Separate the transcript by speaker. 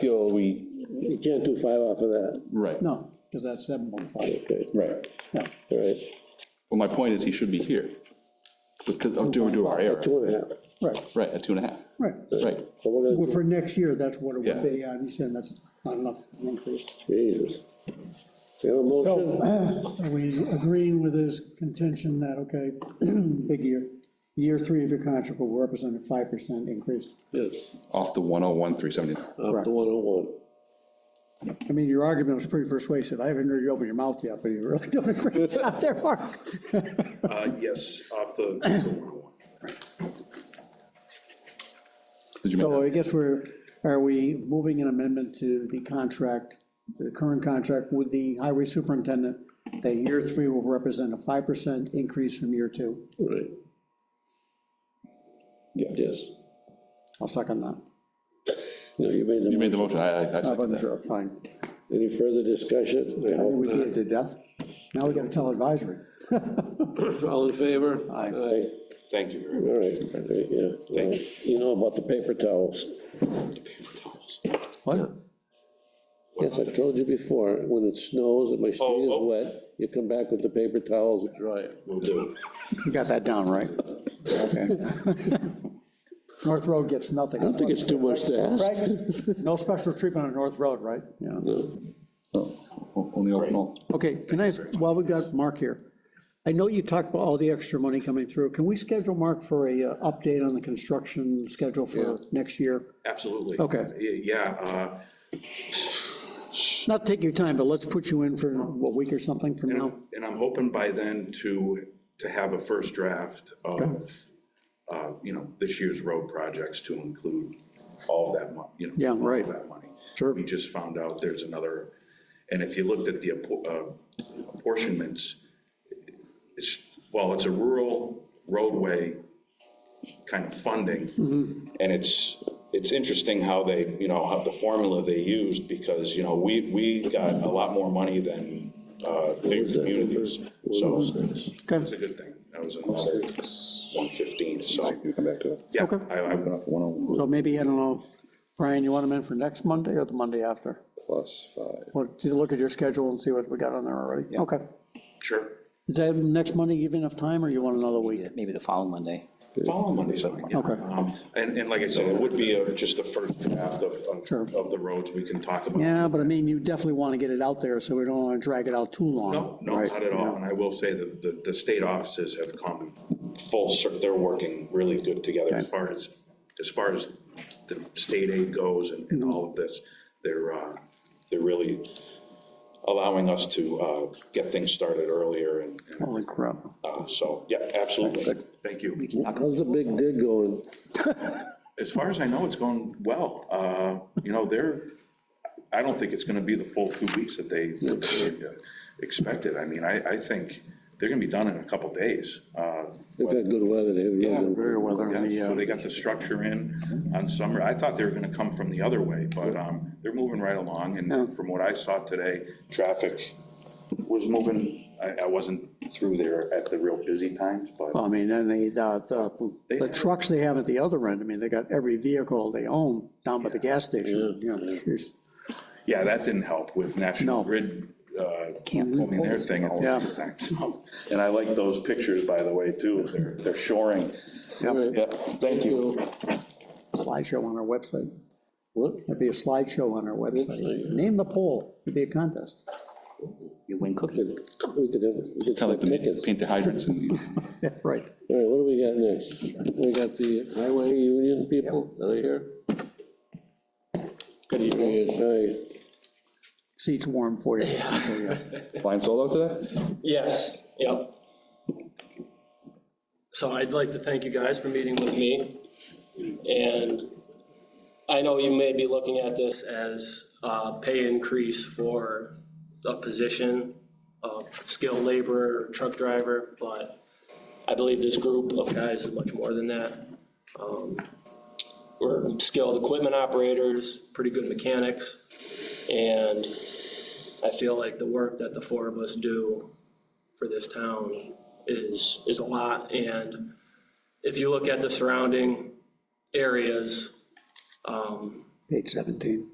Speaker 1: feel we,
Speaker 2: You can't do five off of that.
Speaker 3: Right,
Speaker 4: No, because that's seven point five.
Speaker 2: Okay,
Speaker 3: right.
Speaker 4: Yeah,
Speaker 2: all right.
Speaker 3: Well, my point is he should be here. Because, oh, due to our error,
Speaker 2: Two and a half.
Speaker 4: right,
Speaker 3: right, at two and a half,
Speaker 4: right.
Speaker 3: right.
Speaker 2: So we're gonna
Speaker 4: Well,
Speaker 2: do-
Speaker 4: for next year, that's what it
Speaker 3: Yeah.
Speaker 4: would be, and he said that's not enough an increase.
Speaker 2: Jesus. We have a motion,
Speaker 4: So, are we agreeing with his contention that, okay, big year, year three of your contract will represent a five percent increase?
Speaker 2: yes,
Speaker 3: Off the 101, 379.
Speaker 2: up
Speaker 4: Correct.
Speaker 2: to one oh one.
Speaker 4: I mean, your argument was pretty persuasive. I haven't heard you open your mouth yet, but you really don't agree out there, Mark.
Speaker 5: Uh, Yes, off the, the 101.
Speaker 3: Did you make
Speaker 4: So
Speaker 3: that?
Speaker 4: I guess we're, are we moving an amendment to the contract, the current contract with the highway superintendent, that year three will represent a 5% increase from year two?
Speaker 2: Right,
Speaker 3: Yes.
Speaker 2: yes.
Speaker 4: I'll second that.
Speaker 2: No, you made
Speaker 3: You
Speaker 2: the,
Speaker 3: made the motion, I, I- I
Speaker 4: I
Speaker 3: second
Speaker 4: wasn't
Speaker 3: that.
Speaker 4: sure, fine.
Speaker 2: any further discussion? I
Speaker 4: I think
Speaker 2: hope
Speaker 4: we beat
Speaker 2: not.
Speaker 4: it to death. Now we gotta tell advisory.
Speaker 2: All in favor?
Speaker 4: Aye.
Speaker 2: Aye,
Speaker 5: Thank you very much.
Speaker 2: all right, yeah. Well, You know about the paper towels.
Speaker 4: What?
Speaker 2: Yes, I told you before, when it snows and my street is
Speaker 5: oh.
Speaker 2: wet, you come back with the paper towels and dry it.
Speaker 5: Will do.
Speaker 4: You got that down, right? Okay. North Road gets nothing.
Speaker 2: I don't think it's too much to ask.
Speaker 4: Right? No special treatment on North Road, right? Yeah.
Speaker 3: O- Only open all.
Speaker 4: Okay, can I, while we've got Mark here, I know you talked about all the extra money coming through. Can we schedule Mark for a uh, update on the construction schedule for next year?
Speaker 5: Absolutely.
Speaker 4: Okay.
Speaker 5: Y- Yeah, uh,
Speaker 4: Not take your time, but let's put you in for a week or something from now.
Speaker 5: uh, and I'm hoping by then to, to have a first draft of, uh, you know, this year's road projects to include all that money, you know.
Speaker 4: Yeah, right.
Speaker 5: All that money.
Speaker 4: Sure.
Speaker 5: We just found out there's another, and if you looked at the appo- uh, apportionments, it's, well, it's a rural roadway kind of funding.
Speaker 4: Mm-hmm.
Speaker 5: And it's, it's interesting how they, you know, how the formula they used, because, you know, we, we got a lot more money than uh, big communities. So it's a
Speaker 4: Okay,
Speaker 5: good thing. That was another 115, so,
Speaker 3: You come back to it.
Speaker 5: yeah.
Speaker 4: Okay.
Speaker 5: I- I-
Speaker 3: Off 101
Speaker 4: so maybe, I don't know, Brian, you want him in for next Monday or the Monday after?
Speaker 3: plus five.
Speaker 4: Well, do you look at your schedule and see what we got on there already? Okay.
Speaker 5: Sure.
Speaker 4: Is that next Monday give you enough time, or you want another week?
Speaker 6: maybe the following Monday.
Speaker 5: Follow Monday's fine. yeah.
Speaker 4: Okay.
Speaker 5: Um, And, and like I said, it would be a- just the first draft of,
Speaker 4: Sure.
Speaker 5: of- of the roads we can talk about.
Speaker 4: Yeah, but I mean, you definitely want to get it out there, so we don't want to drag it out too long.
Speaker 5: No, no,
Speaker 4: right?
Speaker 5: not at all, and I will say that the, the state offices have come full, cir- they're working really good together as far as, as far as the state aid goes and, and all of this. They're, uh, they're really allowing us to, uh, get things started earlier and, and,
Speaker 4: Holy crap.
Speaker 5: uh, so, yeah, absolutely. Thank you.
Speaker 2: How's the big dig going?
Speaker 5: As far as I know, it's going well. Uh, You know, they're, I don't think it's going to be the full two weeks that they uh, expected. I mean, I, I think they're going to be done in a couple days. Uh,
Speaker 2: They've got good weather, they have really good
Speaker 4: Very well, they're in
Speaker 5: yeah,
Speaker 4: the, uh,
Speaker 5: So they got the structure in on summer. I thought they were going to come from the other way, but um, they're moving right along. And from what I saw today, traffic was moving. I, I wasn't through there at the real busy times, but
Speaker 4: Well, I mean, and the, the, the- the trucks they have at the other end, I mean, they got every vehicle they own down by the gas station. you know, jeez.
Speaker 5: yeah, that didn't help with National
Speaker 4: No.
Speaker 5: Grid uh,
Speaker 6: Can't.
Speaker 5: I mean, their thing at
Speaker 4: Yeah.
Speaker 5: the time. so. And I like those pictures, by the way, too. They're, they're shoring.
Speaker 4: Yep,
Speaker 5: Yeah, thank you.
Speaker 4: Slideshow on our website.
Speaker 2: What?
Speaker 4: That'd be a slideshow on our website. Name the poll, it'd be a contest.
Speaker 6: You win cookie.
Speaker 2: We could have, we could
Speaker 3: Kind
Speaker 2: sell
Speaker 3: of like the,
Speaker 2: tickets.
Speaker 3: paint the hydrants and
Speaker 4: Yeah, Right.
Speaker 2: All right, what do we got next? We got the highway union people, are they here? Good evening.
Speaker 4: Seats warm for you.
Speaker 3: flying solo today?
Speaker 7: Yes, yep. So I'd like to thank you guys for meeting with me. And I know you may be looking at this as a pay increase for a position of skilled laborer, truck driver, but I believe this group of guys is much more than that. Um, We're skilled equipment operators, pretty good mechanics, and I feel like the work that the four of us do for this town is, is a lot. And if you look at the surrounding areas, um,
Speaker 4: Page 17.